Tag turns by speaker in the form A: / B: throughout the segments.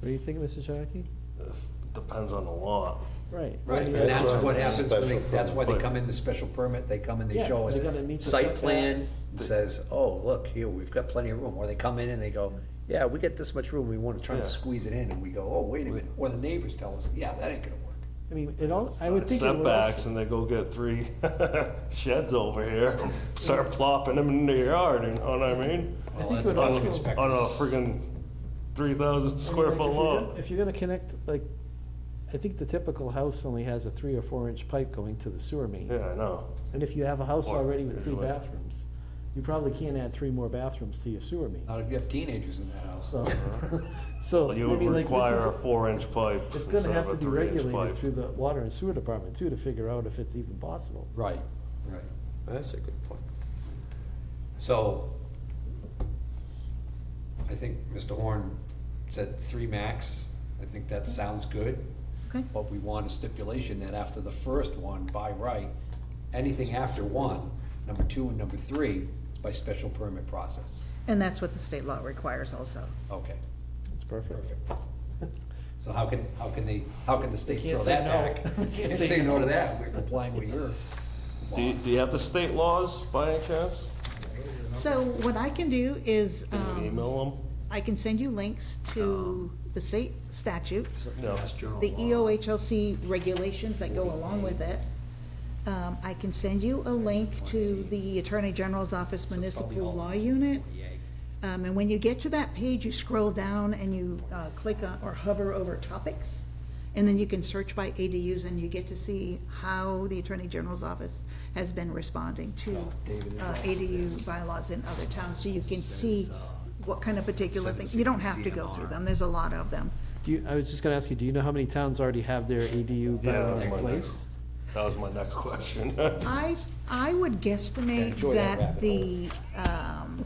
A: What do you think, Mr. Shockey?
B: Depends on the lot.
A: Right.
C: Right,
A: Randy
C: and
A: had-
C: that's
B: why-
C: what happens when they,
B: Special
C: that's why they
B: permit.
C: come in, the special permit, they come and they
A: Yeah,
C: show us.
A: they gotta meet the
C: Site plan
A: setbacks.
C: that says, oh, look, here, we've got plenty of room, or they come in and they go, yeah, we got this much room, we wanna try and
B: Yeah.
C: squeeze it in, and we go, oh, wait a minute, or the neighbors tell us, yeah, that ain't gonna work.
A: I mean, it all, I would think it would
B: Setbacks
A: also,
B: and they go get three sheds over here, and start plopping them into your yard, you know what I mean?
A: I think it
B: On
A: would
B: a,
A: also.
B: on a friggin' three thousand square
A: Like,
B: foot
A: if you're gonna-
B: lot.
A: If you're gonna connect, like, I think the typical house only has a three or four inch pipe going to the sewer main.
B: Yeah, I know.
A: And if you have a house
B: Or
A: already with three
B: usually.
A: bathrooms, you probably can't add three more bathrooms to your sewer main,
C: Not if you have teenagers in that house.
A: so, so, I
B: Uh-huh. You would
A: mean, like,
B: require a
A: this is,
B: four inch pipe
A: it's
B: instead
A: gonna have to
B: of a
A: be
B: three inch
A: regulated
B: pipe.
A: through the water and sewer department too, to figure out if it's even possible.
C: Right, right.
D: That's a good point.
C: So, I think Mr. Horn said three max, I think that sounds good.
E: Okay.
C: But we want a stipulation that after the first one, by right, anything after one, number two and number three, is by special permit process.
E: And that's what the state law requires also.
C: Okay,
A: It's perfect.
C: perfect. So how can, how can they, how can the state
A: Can't
C: throw
A: say
C: that
A: no.
C: back? Can't say no to that, we're complying with your.
B: Do you, do you have the state laws by any chance?
E: So what I can do is,
B: Can you
E: um,
B: email
E: I can send you links to the state statute,
B: them? No.
E: the E EOHLC regulations that go along with it. Um, I can send you a link to the Attorney General's Office Municipal Law Unit. Um, and when you get to that page, you scroll down and you, uh, click on or hover over topics. And then you can search by ADUs and you get to see how the Attorney General's Office has been responding to, uh, ADU bylaws in other towns. So you can see what kind of particular things, you don't have to go through them, there's a lot of them.
A: Do you, I was just gonna ask you, do you know how many towns already have their ADU
B: Yeah,
A: bylaws
B: that's
A: in
B: my
A: place?
B: That was my next question.
E: I, I would guesstimate
C: Enjoy that
E: that
C: rabbit
E: the, um,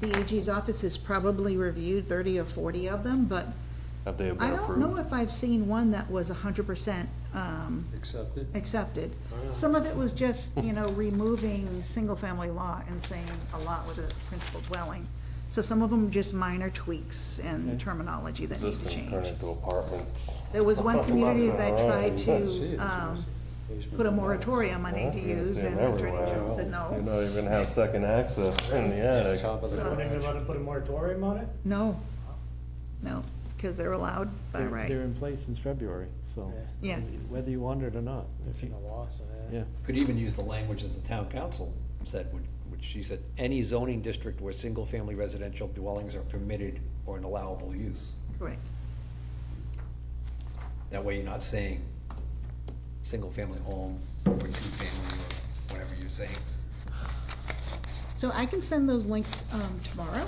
E: the AG's office has probably reviewed thirty or forty of them, but
B: Have they been
E: I don't know
B: approved?
E: if I've seen one that was hundred percent, um,
C: Accepted.
E: accepted. Some of it was just, you know, removing single-family law and saying a lot with a principal dwelling. So some of them just minor tweaks and terminology that
B: This
E: need to
B: can turn
E: change.
B: into apartments.
E: There was one community that tried to,
B: Jeez.
E: um, put a moratorium on ADUs, and the Attorney General said,
B: You
E: no,
B: don't even have second access in the attic.
E: So-
F: They're allowed to put a moratorium on it?
E: no, no, because they're allowed by
A: They're- They're
E: right.
A: in place since February, so.
E: Yeah.
A: Whether you want it or not, if
F: It's in
A: you,
F: the law, so yeah.
A: yeah.
C: Could even use the language that the town council said, which, which she said, any zoning district where single-family residential dwellings are permitted or an allowable use.
E: Correct.
C: That way you're not saying, single-family home, or two-family, or whatever you're saying.
E: So I can send those links um, tomorrow,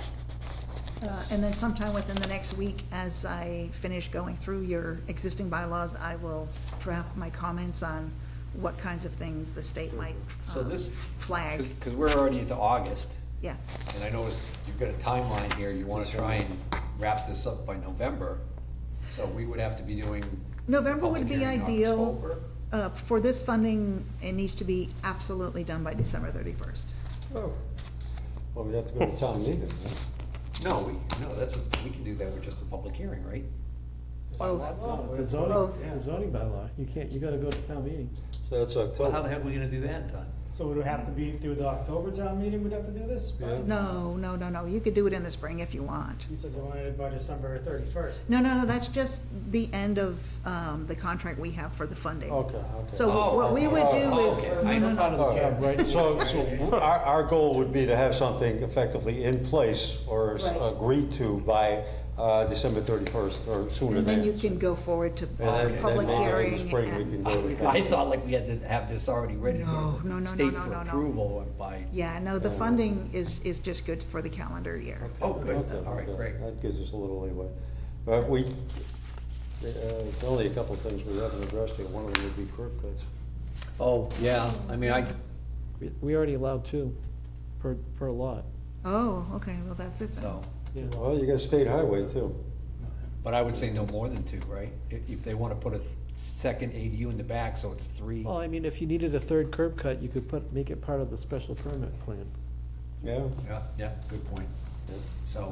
E: uh, and then sometime within the next week, as I finish going through your existing bylaws, I will draft my comments on what kinds of things the state might
C: So
E: um,
C: this.
E: flag,
C: Because we're already into August,
E: yeah.
C: and I noticed you've got a timeline here, you wanna try and wrap this up by November, so we would have to be doing.
E: November
C: public
E: would be
C: hearing Oh, in
E: ideal.
C: October.
E: Uh, For this funding, it needs to be absolutely done by December 31st.
D: Oh, well, we have to go to town meeting,
C: No, we, no, that's, a- we can do that with just a public hearing, right?
E: Both.
A: It's a zoning,
E: Both.
A: it's a zoning bylaw. You can't, you gotta go to town meeting.
D: so that's
C: Well, how the
D: October.
C: heck are we gonna do that, Todd?
F: So would it have to be through the October town meeting, we'd have to do this? by-
D: Yeah.
E: No, no, no, no, you could do it in the spring if you want.
F: You said you wanted it by December thirty-first.
E: No, no, no, that's just the end of um, the contract we have for the funding.
D: Okay, okay.
E: So what we would do
C: Oh,
E: is,
C: okay.
E: no,
C: I
E: no,
C: know how
E: no,
C: to-
D: All
A: job, right?
D: right, so, so our, our goal would be to have something effectively in place or s-
E: Right.
D: agreed to by uh, December 31st or sooner
E: and
D: than.
E: then you can go forward to
D: And
E: uh,
D: then- then
E: public
D: maybe in the
E: hearing.
D: spring we can
E: and-
D: go to.
C: I thought like we had to have this already ready to
E: No,
C: go
E: no, no,
C: to
E: no,
C: the state
E: no,
C: for
E: no, no.
C: approval and by,
E: Yeah, no, the funding is, is just good for the calendar year.
C: oh, good,
D: Okay,
C: all right,
D: okay.
C: great.
D: That gives us a little leeway. But we, uh, only a couple of things we haven't addressed yet, one of them would be curb cuts.
C: Oh, yeah, I mean, I,
A: We- We already allowed two per, per lot.
E: Oh, okay, well, that's it then.
C: so,
D: Well, you got a state highway too.
C: but I would say no more than two, right? If, if they wanna put a th- second ADU in the back, so it's three,
A: Well, I mean, if you needed a third curb cut, you could put, make it part of the special permit plan.
D: Yeah.
C: yeah, yeah, good point. So,